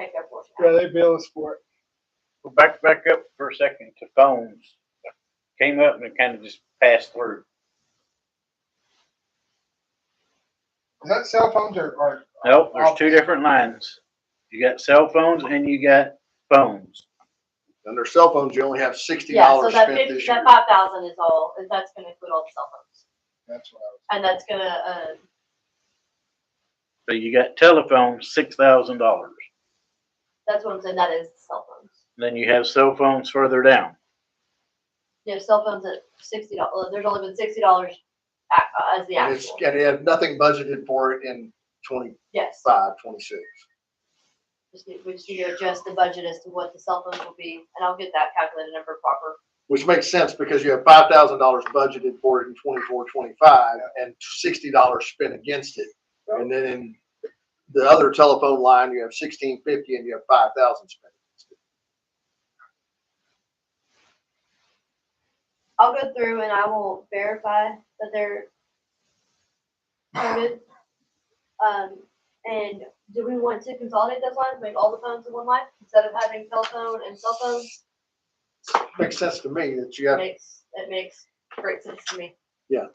Yeah, they bill us for it. Well, back, back up for a second to phones. Came up and kind of just passed through. Is that cell phones or, or? Nope, there's two different lines. You got cell phones and you got phones. Under cell phones, you only have sixty Yeah, so dollars that spent fifty, this year. that five thousand is all, and that's gonna include all the cell phones, That's what and that's gonna, uh, So you got telephone, six thousand dollars. that's what I'm saying, that is cell phones. Then you have cell phones further down. Yeah, cell phones at sixty dollars, there's only been sixty dollars uh, as the And it's, actual, and they have nothing budgeted for it in twenty-five, yes. twenty-six. Just need, we just need to adjust the budget as to what the cell phones will be, and I'll get that calculated number proper. Which makes sense because you have five thousand dollars budgeted for it in twenty-four, twenty-five and sixty dollars spent against it. And then in the other telephone line, you have sixteen fifty and you have five thousand spent. I'll go through and I will verify that they're counted. Um, and do we want to consolidate those lines, make all the phones in one line, instead of having telephone and cell phones? Makes sense to me that you It have, Makes, it makes great sense to me. I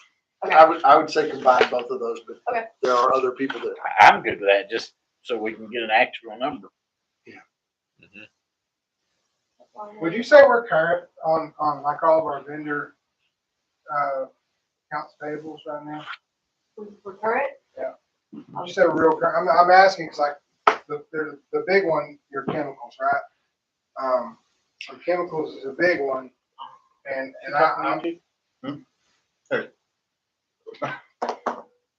Uh, would, I would say combine both of those, but Okay. there are other people that I- I'm good with that, just so we can get an actual number. I was. Would you say we're current on, on like all of our vendor, uh, accounts payables right now? For current? Yeah. You said real current. I'm, I'm asking, cause like, the, there's the big one, your chemicals, right? Um, so chemicals is a big one. And, and I, I'm,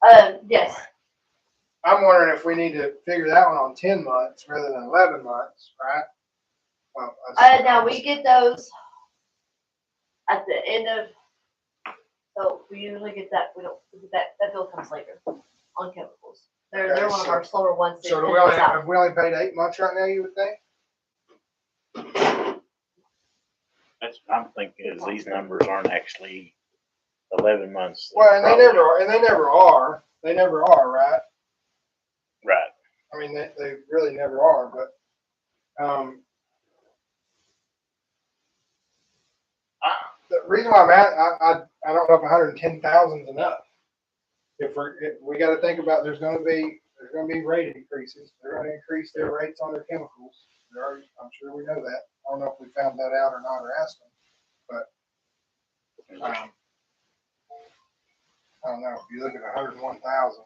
Um, yes, I'm wondering if we need to figure that one on ten months rather than eleven months, right? Well, uh, now we get those at the end of, so we usually get that, we don't, that, that bill comes later on chemicals. They're, they're one of our slower ones. that So do hit we only, us out. have we only paid eight months right now, you would think? That's, I'm thinking is these numbers aren't actually eleven months. Well, and they never are, and they never are, they never are, right? Right. I mean, they, they really never are, but, um, I- the reason why I'm at, I, I, I don't know if hundred and ten thousand is enough. If we're, if, we gotta think about, there's gonna be, there's gonna be rate increases, they're gonna increase their rates on their chemicals. They're already- I'm sure we know that, I don't know if we found that out or not or asked them, but, um, I don't know, if you look at hundred and one thousand.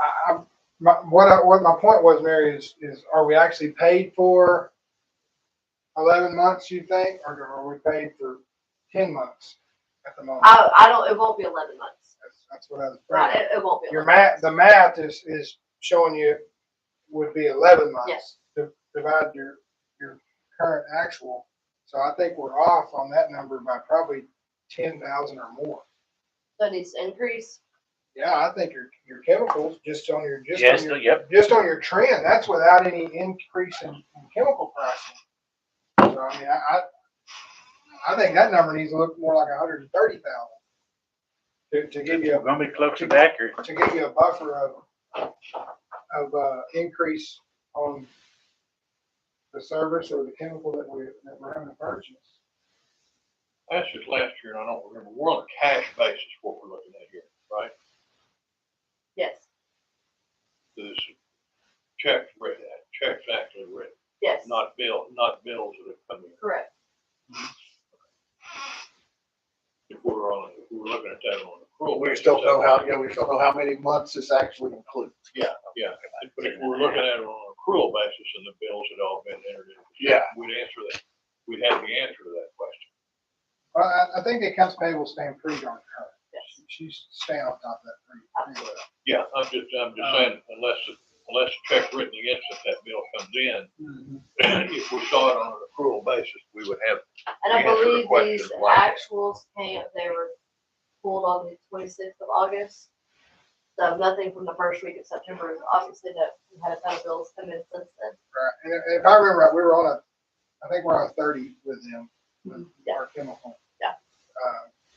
I, I, my, what I, what my point was, Mary, is, is are we actually paid for eleven months, you think, or are we paid for ten months at the moment? I, I don't, it won't be eleven months. That's, that's what I was. Right, thinking. it, it won't be. Your 11 math, the math is, is showing you would be eleven months. Yes. to Divide your, your current actual, so I think we're off on that number by probably ten thousand or more. So it needs to increase. Yeah, I think your, your chemicals, just on your, just Yes, on your yep, just on your trend, that's without any increase in, in chemical pricing. So I mean, I, I, I think that number needs to look more like hundred and thirty thousand. To, to give we're you, gonna be close to accurate. a- to give you a buffer of, of, uh, increase on the service or the chemical that we, that we're having to purchase. That's just last year, and I don't remember. We're on a cash basis, what we're looking at here, right? Yes, This checks read, checks actually read, yes, not bill, not bills that have come in. correct. If we're on, if we're looking at that on accrual. we basis, just don't know that- how, you know, we just don't know how many months this actually includes. Yeah, but if we're looking at it on an accrual basis and the bills had all been entered in. Yeah. We'd answer that. We'd have the answer to that question. Well, I, I think the accounts payable stand pretty darn current. Yes. She's staying on top of that pretty, pretty well. Yeah, I'm just, I'm just saying, unless, unless a check written against it, that bill comes in, Mm-hmm. if we saw it on an accrual basis, we would have And I We answered the believe question these like that. actuals came, they were pulled on the twenty-sixth of August. So nothing from the first week of September is obviously that we had a ton of bills come in since then. Right, and if- if I remember right, we were on a, I think we're on a thirty with them, with Mm-hmm. Yeah. our chemical. Yeah. Uh,